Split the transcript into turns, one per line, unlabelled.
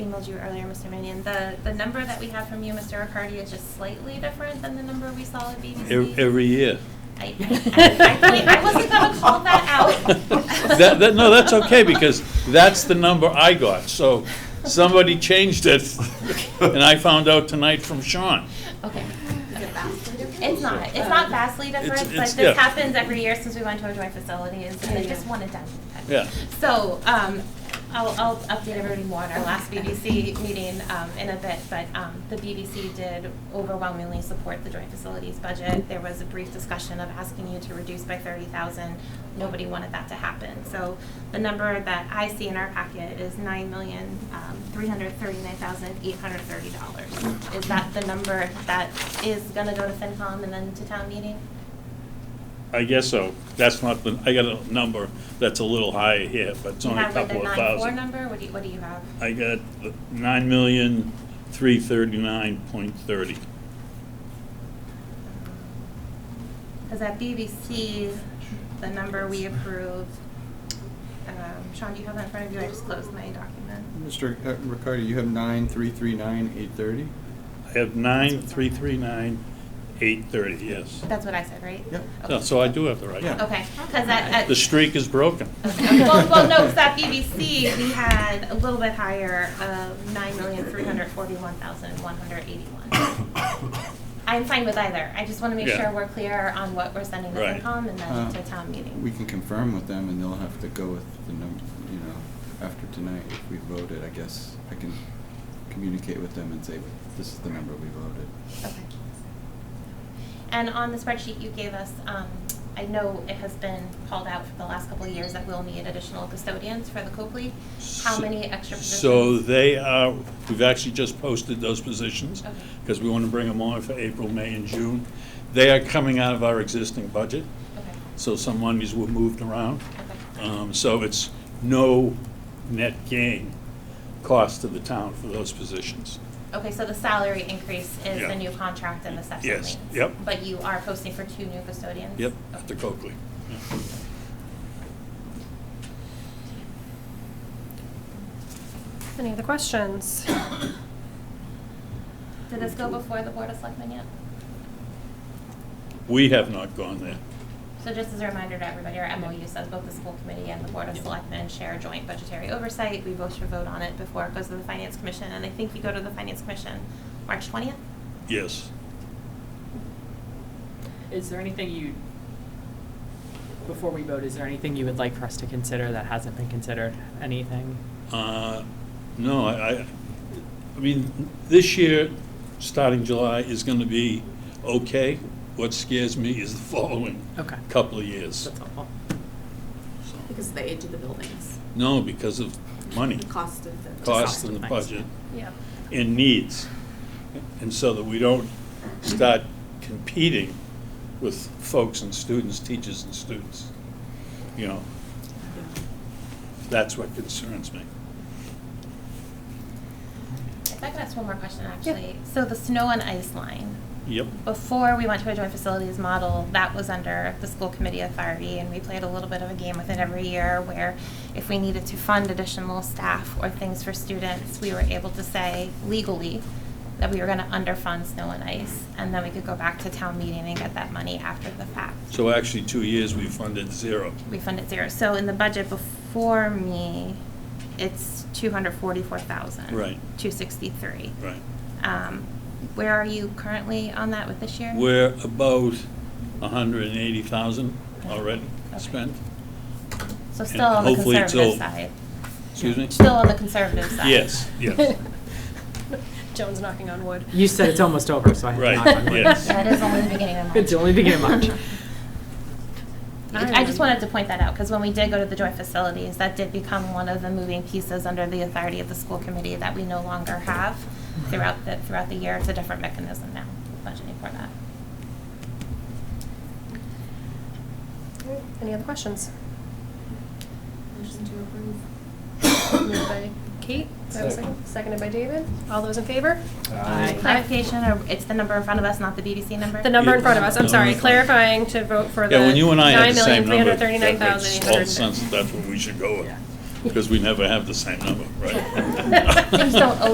emailed you earlier, Mr. Mannion, the, the number that we have from you, Mr. Riccardi, is just slightly different than the number we saw at BBC.
Ev- Every year.
I, I, I, wait, I wasn't gonna call that out.
That- that- no, that's okay, because that's the number I got, so somebody changed it, and I found out tonight from Sean.
Okay. It's not, it's not vastly different, but
it's-
this
yeah.
happens every year since we went to our joint facilities, and I just want it done.
Yeah.
So, um, I'll, I'll update everybody more on our last BBC meeting, um, in a bit, but, um, the BBC did overwhelmingly support the joint facilities budget. There was a brief discussion of asking you to reduce by thirty thousand, nobody wanted that to happen. So the number that I see in our packet is nine million, um, three hundred thirty-nine thousand, eight hundred thirty dollars. Is that the number that is gonna go to FinCom and then to town meeting?
I guess so. That's not the, I got a number that's a little higher here, but it's
Do you
only a
have like the
couple of
nine four
thousand.
number, what do you, what do you have?
I got nine million, three thirty-nine point thirty.
Because at BBC, the number we approved, um, Sean, do you have that in front of you? I just closed my document.
Mr. Ricardi, uh, you have nine, three, three, nine, eight, thirty?
I have nine, three, three, nine, eight, thirty, yes.
That's what I said, right?
Yep.
So-
Okay.
So I do have the right.
Yeah.
number.
Okay, because at, at.
The streak is broken.
Okay. Uh, Well, well, no, because at BBC, we had a little bit higher of nine million, three hundred forty-one thousand, one hundred eighty-one. I'm fine with either. I just want to make
Yeah.
sure we're clear on what we're sending to
Right.
FinCom and
Uh,
then to town meeting.
We can confirm with them, and they'll have to go with the number, you know, after tonight, if we voted, I guess I can communicate with them and say, this is the number we voted.
Okay. And on the spreadsheet you gave us, um, I know it has been called out for the last couple of years that we'll need additional custodians for the Copley. How
So-
many extra positions?
So they are, we've actually just posted those positions,
Okay.
because we want to bring them on for April, May, and June. They are coming out of our existing budget,
Okay,
so some monies were moved around.
okay.
Um, So it's no net gain cost to the town for those positions.
Okay, so the salary increase is
Yeah.
the new contract and the steps and
Yes,
lanes?
yep.
But you are posting for two new custodians?
Yep,
Okay.
after Coakley. Yeah.
Any other questions?
Did this go before the Board of Selectmen yet?
We have not gone there.
So just as a reminder to everybody, our MOU says both the school committee and the board of selectmen share joint budgetary oversight. We both should vote on it before it goes to the finance commission, and I think we go to the finance commission March twentieth?
Yes.
Is there anything you, before we vote, is there anything you would like for us to consider that hasn't been considered? Anything?
Uh, No, I, I- I mean, this year, starting July, is going to be okay. What scares me is the following
Okay.
couple of years.
That's helpful.
So-
Because of the age of the buildings.
No, because of money,
The cost of the.
cost and the
Thanks.
budget,
Yeah.
and needs. And so that we don't start competing with folks and students, teachers and students. You know, that's what concerns me.
If I could ask one more question, actually. So the snow and ice line,
Yep.
Oh.
before we went to a joint facilities model, that was under the school committee authority, E, and we played a little bit of a game with it every year where if we needed to fund additional staff or things for students, we were able to say legally that we were gonna underfund snow and ice, and then we could go back to town meeting and get that money after the fact.
So actually, two years, we funded zero.
We funded zero. So in the budget before me, it's two hundred forty-four thousand.
Right.
Two sixty-three.
Right.
Um, where are you currently on that with this year?
We're about 180,000 already
Okay.
spent.
So
and
still on the
hopefully it's
conservative
all-
side.
Excuse me?
Still on the conservative side.
Yes, yes.
Joan's knocking on wood.
You said it's almost over, so I
Right,
have to knock on wood.
yes.
That is only the beginning of March.
It's only the beginning of March.
I just wanted to point that out, because when we did go to the joint facilities, that did become one of the moving pieces under the authority of the school committee that we no longer have throughout the, throughout the year. It's a different mechanism now, budgeting for that.
Any other questions?
Motion to approve.
Moved by Kate, do I have a second? seconded by David. All those in favor?
Clarification, or it's the number in front of us, not the BBC number?
The number in front of us, I'm sorry,
Yeah.
clarifying to vote for the
Yeah, when you and I had
nine
the same
million, three
number. that
hundred thirty-nine thousand, eight
makes
hundred.
all sense, that that's what we should go with. because we never have the same number, right?
Things don't